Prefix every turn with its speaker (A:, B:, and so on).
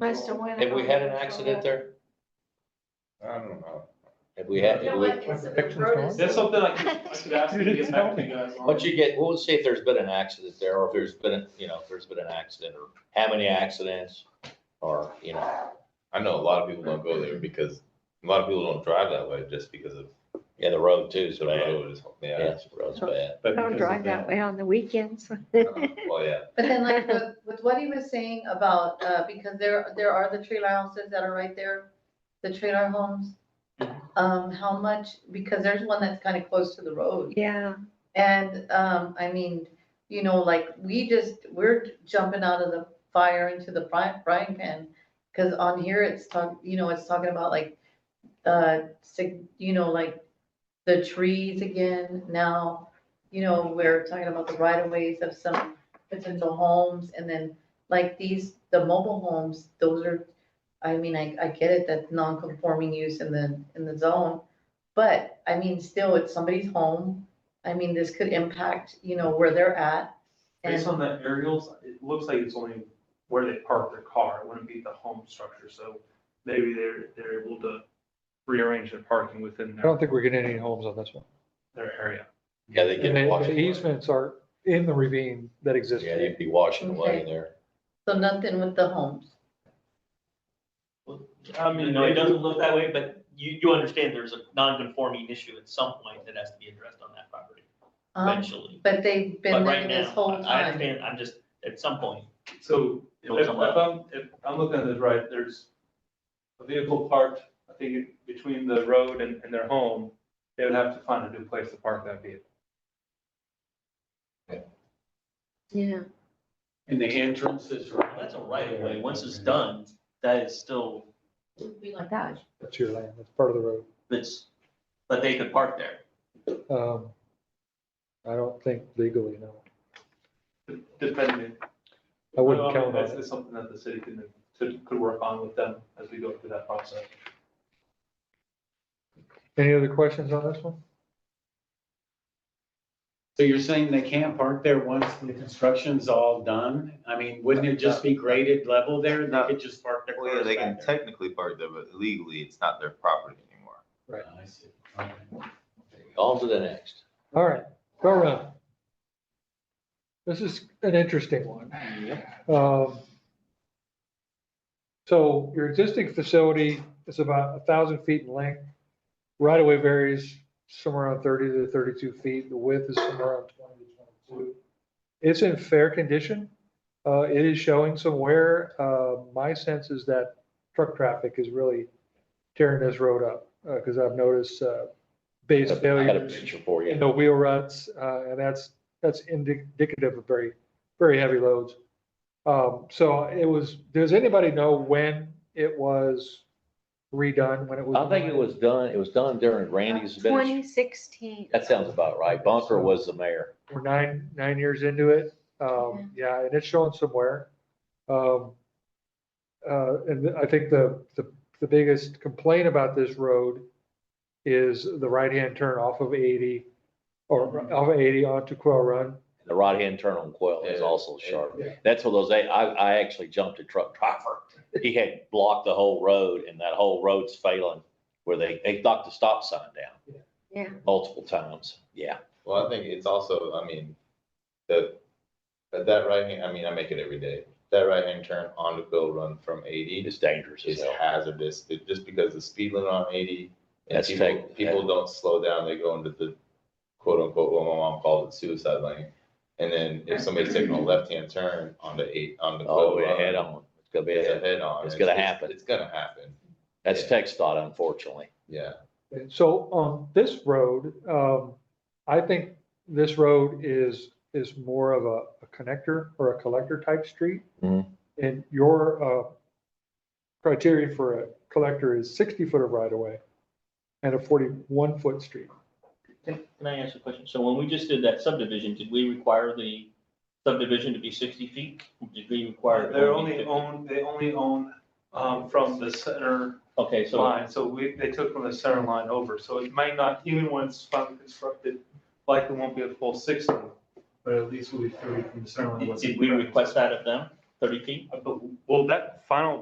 A: Must have went.
B: Have we
A: out.
B: had an accident there?
C: I don't know.
B: Have we had,
D: You
B: have
D: know
B: we-
D: what, it's a
E: Perfection's
D: road
E: gone.
D: is-
F: That's something I could, I could ask you to get back to you guys on.
B: once you get, well, let's see if there's been an accident there, or if there's been, a- you know, if there's been an accident, or how many accidents, or, you know,
C: I know a lot of people don't go there because a lot of people don't drive that way just because of
B: yeah, the road too,
C: the
B: so bad.
C: road is,
B: Yeah,
C: yeah.
B: the road's bad.
C: but
A: Don't
C: because
A: drive
C: of
A: that way on the weekends.
C: Well, yeah,
D: But then like with, with what he was saying about, uh, because there, there are the trailer houses that are right there, the trailer homes. Um, how much, because there's one that's kind of close to the road.
A: Yeah,
D: And, um, I mean, you know, like, we just, we're jumping out of the fire into the frying, frying pan. Cause on here, it's talk, you know, it's talking about like, uh, sig- you know, like the trees again now. You know, we're talking about the right of ways of some potential homes and then like these, the mobile homes, those are. I mean, I, I get it, that non-conforming use in the, in the zone, but I mean, still, it's somebody's home. I mean, this could impact, you know, where they're at. And
F: Based on the aerials, it looks like it's only where they park their car, it wouldn't be the home structure, so maybe they're, they're able to rearrange their parking within
E: I don't
F: their,
E: think we're getting any homes on this one.
F: their area.
B: Yeah, they
E: And
B: get
E: the-
B: washed
E: the
B: away.
E: easements are in the ravine that exists.
B: Yeah, you'd be washing away there.
D: so nothing with the homes.
G: I mean, no, it doesn't look that way, but you, you understand there's a non-conforming issue at some point that has to be addressed on that property
D: Um,
G: eventually.
D: but they've
G: But
D: been
G: right
D: there this
G: now,
D: whole
G: I
D: time.
G: understand, I'm just, at some point,
F: So if
G: It'll
F: if
G: come up.
F: I'm, if I'm looking at this right, there's a vehicle parked, I think, between the road and, and their home, they would have to find a new place to park that vehicle.
A: yeah.
H: And the entrance is right.
G: that's a right of way, once it's done, that is still,
D: Would be like-
A: Gosh,
E: That's your land, that's part of the road.
G: that's, but they could park there.
E: Um, I don't think legally, no.
F: Depending.
E: I
F: Well,
E: wouldn't
F: mean,
E: count on
F: that's-
E: it.
F: That's something that the city can, could, could work on with them as we go through that process.
E: Any other questions on this one?
H: So you're saying they can't park there once the construction's all done? I mean, wouldn't it just be graded level there? They could just park their
C: Well, yeah,
H: cars
C: they can
H: back there?
C: technically park there, but legally, it's not their property anymore.
H: I see. Okay.
B: On to the next.
E: All right, go around. This is an interesting one. Um, So your existing facility is about a thousand feet in length. Right away varies somewhere around thirty to thirty-two feet. The width is somewhere around twenty to twenty-two. It's in fair condition. Uh, it is showing some wear. Uh, my sense is that truck traffic is really tearing this road up, uh, because I've noticed, uh, base
B: I
E: failures
B: had a picture for
E: in
B: you.
E: the wheel ruts, uh, and that's, that's indic- indicative of very, very heavy loads. Um, so it was, does anybody know when it was redone, when it was?
B: I think it was done, it was done during Randy's administration.
A: Twenty sixteen.
B: That sounds about right. Bunker was the mayor.
E: We're nine, nine years into it, um, yeah, and it's showing somewhere. Um, uh, and I think the, the, the biggest complaint about this road is the right-hand turn off of eighty, or off of eighty onto Quail Run.
B: The right-hand turn on Quail is also sharp.
E: Yeah.
B: That's one of those, I, I I actually jumped a truck driver. He had blocked the whole road and that whole road's failing where they, they knocked the stop sign down.
A: Yeah.
B: Multiple times, yeah.
C: Well, I think it's also, I mean, the, that- that right hand, I mean, I make it every day. That right hand turn onto Bill Run from eighty
B: It's dangerous as
C: is
B: hell.
C: hazardous, It- just because the speed limit on eighty. And
B: That's
C: people,
B: tech-
C: people don't slow down, they go into the quote unquote, what my mom called it suicide lane. And then if somebody's taking a left hand turn on the eight, on the.
B: Oh,
C: Quill
B: yeah,
C: Run,
B: head on. It's gonna be a
C: It's a
B: head.
C: head on.
B: It's gonna happen.
C: It's gonna happen,
B: That's text dot unfortunately.
C: yeah.
E: And so on this road, um, I think this road is, is more of a, a connector or a collector type street.
B: Mhm.
E: And your, uh, criteria for a collector is sixty foot of right of way and a forty-one foot street.
G: Can can I ask a question? So when we just did that subdivision, did we require the subdivision to be sixty feet? Did we require? it
F: They're
G: only
F: only
G: 50?
F: own, they only own, um, from the center
G: Okay, so,
F: line, so we, they took from the center line over, so it might not, even when it's finally constructed, likely won't be a full sixty, but at least we'll be thirty from the center line.
G: did
F: once
G: did
F: it's
G: we
F: correct.
G: request that of them?
I: thirty feet?
H: I bel- Well, that final